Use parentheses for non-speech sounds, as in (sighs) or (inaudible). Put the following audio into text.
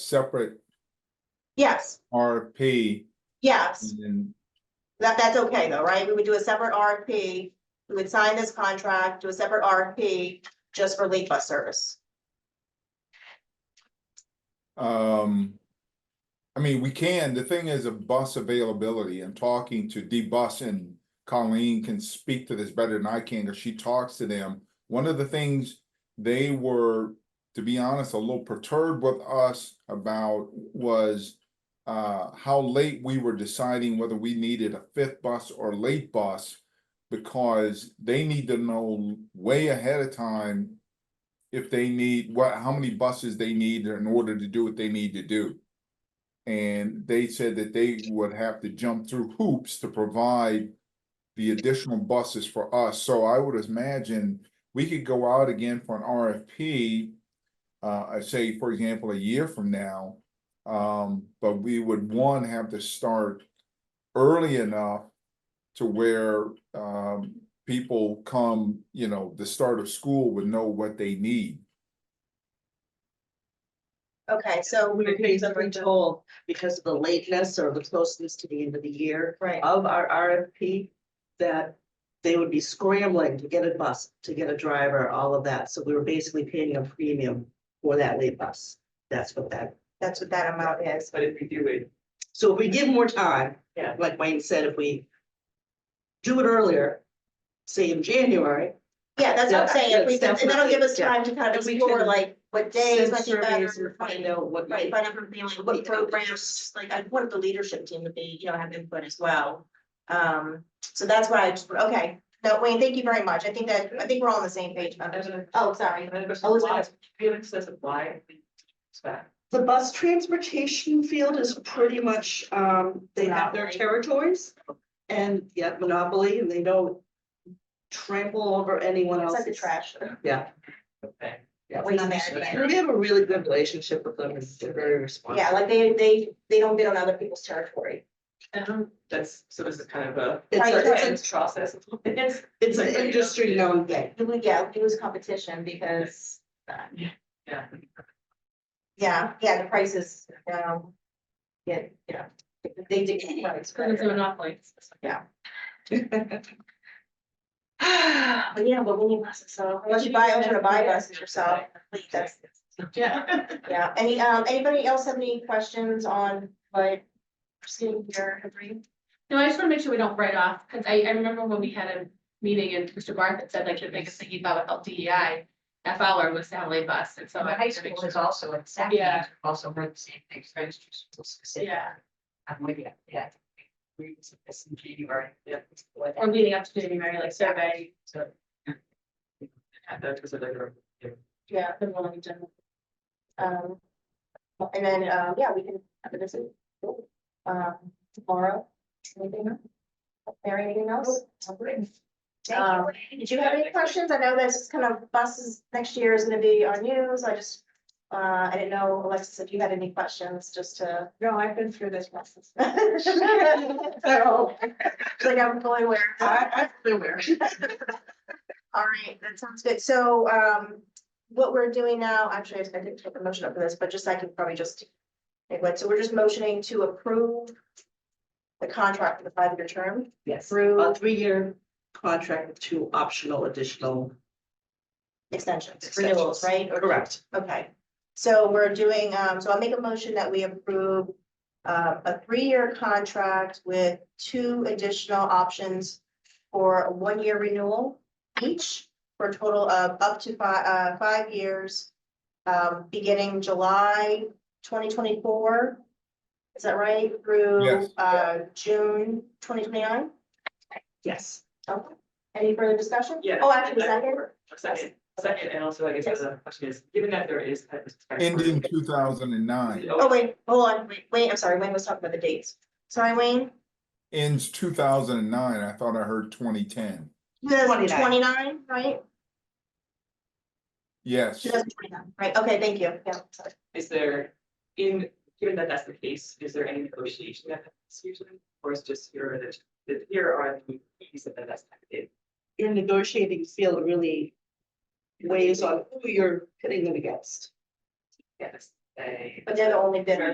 separate Yes, RFP yes, and then that, that's okay though, right? We would do a separate RFP. We would sign this contract, do a separate RFP just for late bus service. Um, I mean, we can, the thing is a bus availability, I'm talking to D-Bus and Colleen can speak to this better than I can, cause she talks to them. One of the things they were, to be honest, a little perturbed with us about was uh, how late we were deciding whether we needed a fifth bus or late bus because they need to know way ahead of time if they need what how many buses they need in order to do what they need to do. And they said that they would have to jump through hoops to provide the additional buses for us. So I would imagine we could go out again for an RFP. Uh, I say, for example, a year from now, um, but we would one have to start early enough to where um people come, you know, the start of school would know what they need. Okay, so we We would could be easily told because of the lateness or the closeness to the end of the year Right, of our RFP that they would be scrambling to get a bus, to get a driver, all of that. So we were basically paying a premium for that late bus. That's what that, that's what that amount is. but if we do it. So if we give more time, yeah, like Wayne said, if we do it earlier, say in January, Yeah, that's what I'm saying. If we, Yeah, and that'll give us yeah. time to kind of And we explore can like what days send might be surveys better. and find out what. Right, but I'm feeling what programs, just like I wanted the leadership team to be, you know, have input as well. Um, so that's why I just, okay, no, Wayne, thank you very much. I think that, I think we're all on the same page. about this. Oh, sorry. Elizabeth. Felix says apply. Spec. The bus transportation field is pretty much, um, they have their Monopoly. territories. And yet monopoly, and they don't trample over anyone It's else. like the trash. Yeah. Okay. yeah. Waste management. We have a really good relationship with them, and they're very responsive. Yeah, like they, they, they don't bid on other people's territory. Um, That's, so this is kind of a. It's Right, a, that's it's It's process. It's. a, it's an industry known Yeah, thing. it would- yeah, it was competition because, uh, Yeah. yeah, yeah, the prices, um, yeah, you know, they did. It's monopoly. (sighs) But yeah, but we need buses, so unless you buy, I'm gonna buy buses yourself, please, that's, Yeah. yeah, any, um, anybody else have any questions on what? we're seeing here, agree? No, I just wanna make sure we don't write off, cause I, I remember when we had a meeting and Mr. Barth had said like the biggest thing he thought about DEI. E F hour was the LA bus, and so. The I high wanted to make school sure- is also in Sac, Yeah. also heard the same things, registered schools. say, Yeah, I'm with you, yeah. We was this in January, yeah. before or that. leading up to January, like survey, So, And that was a later. Yeah, the rolling agenda. um, and then, um, yeah, we can have a visit, um, tomorrow. Anything else? Mary, anything else? Um, did you have any questions? I know this is kind of buses next year is gonna be on you, so I just, uh, I didn't know, Alexis, if you had any questions, just to. No, I've been through (laughs) this process. So, like I'm fully aware. I, I'm aware. (laughs) All right, that sounds good. So, um, what we're doing now, actually, I didn't take a motion up for this, but just I can probably just. make one. so we're just motioning to approve. The contract for the five-year term Yes, Uh, through a three-year contract with two optional additional extensions, extensions. renewals, right? Or- Correct. Okay, so we're doing, um, so I'll make a motion that we approve. Uh, a three-year contract with two additional options for a one-year renewal each. For a total of up to fi- uh, five years, um, beginning July twenty twenty-four. Is that right? Through, Yes. uh, June twenty twenty-nine? Yes. Okay, any further discussion? Yeah. Oh, actually, second, A Second, a second, and also I guess the other question is, given that there is. that was- Ending two thousand and nine, oh, wait, hold on, wait, wait, I'm sorry, Wayne was talking about the dates. Sorry, Wayne? ends two thousand and nine, I thought I heard twenty ten, Two thousand 29. twenty-nine, right? yes. Two thousand twenty-nine, right, okay, thank you, yeah, sorry. Is there, in, given that that's the case, is there any negotiation that happens usually, or is just here, that that here are the fees and then that's kind of it? Your negotiating field really weighs on who you're pitting it against. Yes. they. but they're the only bidder.